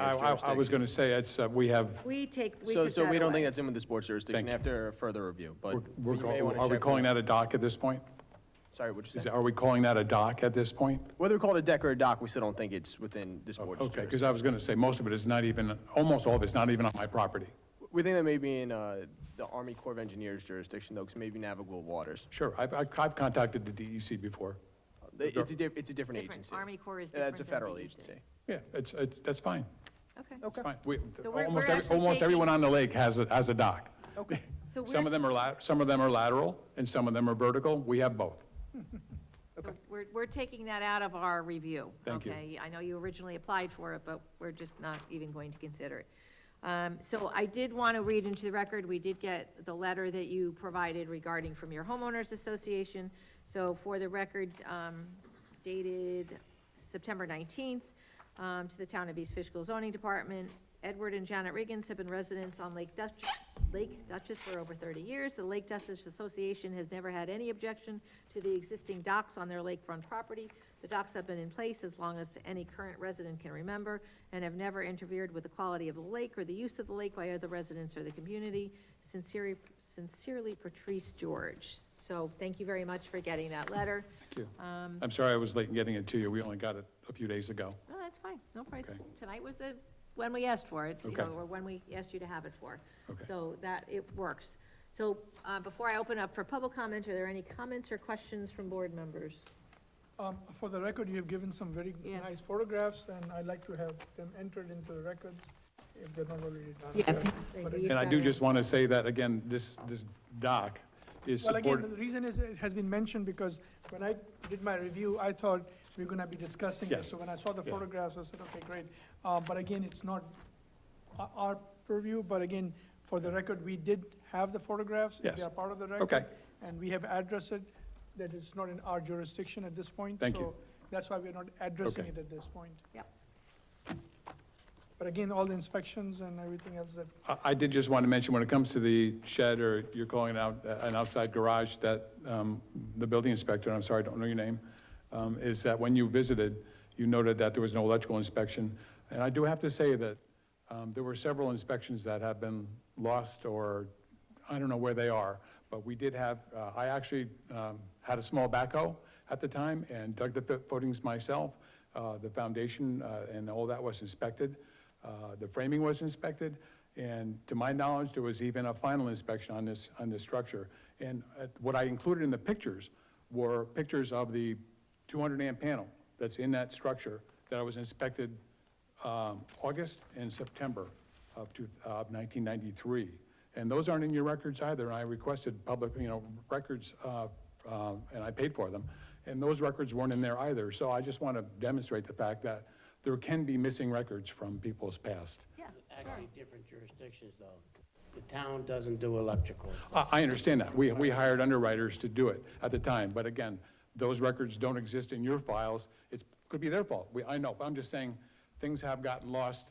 I, sports I- I was jurisdiction. going to say, it's, uh, we have, We take, we So, took so that we don't away. think that's in with the sports jurisdiction Thank after further review, but. we're- we're you may call- wanna are we check calling with- that a dock at this point? Sorry, what'd you Is- say? Are we calling that a dock at this point? Whether we call it a deck or a dock, we still don't think it's within the sports Oh, Okay, jurisdiction. because I was going to say, most of it is not even, almost all of it's not even on my property. We think that may be in, uh, the Army Corps of Engineers jurisdiction though, because maybe navigable waters. Sure, I've, I've I've contacted the DEC before. It's a, di- it's a different Different. agency. Army Corps is Yeah, That's a different than federal DEC. agency. Yeah, it's, it's, that's fine. Okay. It's fine. We, So we're- almost, we're every- actually almost taking- everyone on the lake has a, has a dock. Okay. So Some of we're- them are lat, some of them are lateral, and some of them are vertical. We have both. So we're, we're taking that out of our review. Thank you. Okay, I know you originally applied for it, but we're just not even going to consider it. Um, so I did want to read into the record, we did get the letter that you provided regarding from your homeowners association. So for the record, um, dated September nineteenth, um, to the town of East Fishkill zoning department. Edward and Janet Riggins have been residents on Lake Dutch, Lake Duchess for over thirty years. The Lake Duchess Association has never had any objection to the existing docks on their lakefront property. The docks have been in place as long as any current resident can remember and have never interfered with the quality of the lake or the use of the lake by other residents or the community. Sincerely, sincerely Patrice George. So thank you very much for getting that letter. Thank you. Um, I'm sorry I was late in getting it to you. We only got it a few days ago. No, that's fine, no problem. Okay. Tonight was the, when we asked for it, you Okay. know, or when we asked you to have it for. Okay. So that, it works. So, uh, before I open up for public comment, are there any comments or questions from board members? Um, For the record, you have given some very Yeah. nice photographs, and I'd like to have them entered into the record if they're not already done. They But do it- use And I that do as- just want to say that, again, this, this dock is Well, again, supported. the reason is, it has been mentioned because when I did my review, I thought we're gonna be discussing Yes. this. So when I saw the Yeah. photographs, I said, okay, great. Uh, But again, it's not o- our purview, but again, for the record, we did have the photographs. if Yes. They are part of the record. Okay. And we have addressed it, that it's not in our jurisdiction at this point. Thank you. So That's why we're not addressing Okay. it at this point. Yep. But again, all the inspections and everything else that, I, I did just want to mention, when it comes to the shed, or you're calling it out, uh, an outside garage, that um, the building inspector, and I'm sorry, I don't know your name, um, is that when you visited, you noted that there was no electrical inspection. And I do have to say that um, there were several inspections that have been lost, or I don't know where they are, but we did have, uh, I actually um, had a small backhoe at the time and dug the fo- footings myself. Uh, The foundation uh, and all that was inspected. Uh, The framing was inspected, and to my knowledge, there was even a final inspection on this, on this structure. And uh, what I included in the pictures were pictures of the 200-amp panel that's in that structure that I was inspected um, August and September of two- of 1993. And those aren't in your records either. I requested public, you know, records, uh, um, and I paid for them. And those records weren't in there either. So I just want to demonstrate the fact that there can be missing records from people's past. Yeah, Actually, different jurisdictions, though. The town doesn't do electrical. I I understand that. We, we hired underwriters to do it at the time, but again, those records don't exist in your files. It could be their fault. We, I know, but I'm just saying, things have gotten lost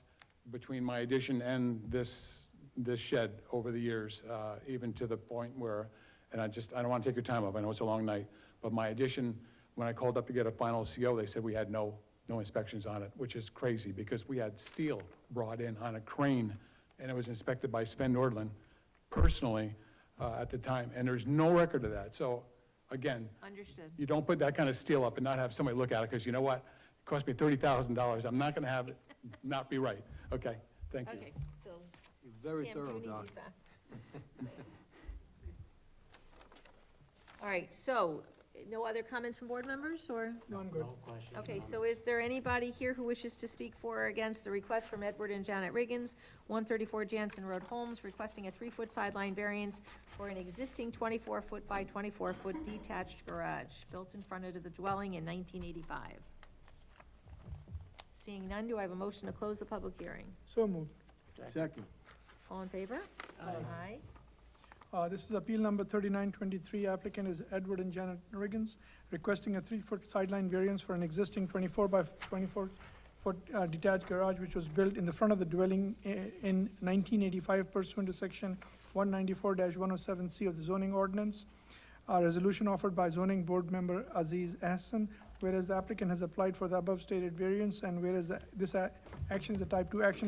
between my addition and this, this shed over the years, uh, even to the point where, and I just, I don't want to take your time up, I know it's a long night, but my addition, when I called up to get a final CO, they said we had no, no inspections on it, which is crazy, because we had steel brought in on a crane, and it was inspected by Sven Nordlund personally uh, at the time, and there's no record of that. So again, understood. you don't put that kind of steel up and not have somebody look at it, because you know what? It cost me $30,000, I'm not going to have it not be right. Okay, thank you. Okay, so. Very Pam, do you thorough, need Doc. these back? All right, so, no other comments from board members, or? no, I'm good. No question. Okay, so is there anybody here who wishes to speak for or against the request from Edward and Janet Riggins, 134 Jansen Road Holmes, requesting a three-foot sideline variance for an existing 24-foot by 24-foot detached garage built in front of the dwelling in 1985? Seeing none, do I have a motion to close the public hearing? So moved. Second. All in favor? Aye. Uh, This is appeal number 3923. Applicant is Edward and Janet Riggins, requesting a three-foot sideline variance for an existing 24 by 24-foot detached garage, which was built in the front of the dwelling i- in 1985 pursuant to section 194-107C of the zoning ordinance. A resolution offered by zoning board member Aziz Hassan, whereas the applicant has applied for the above stated variance, and whereas the- this a- action is a type 2 action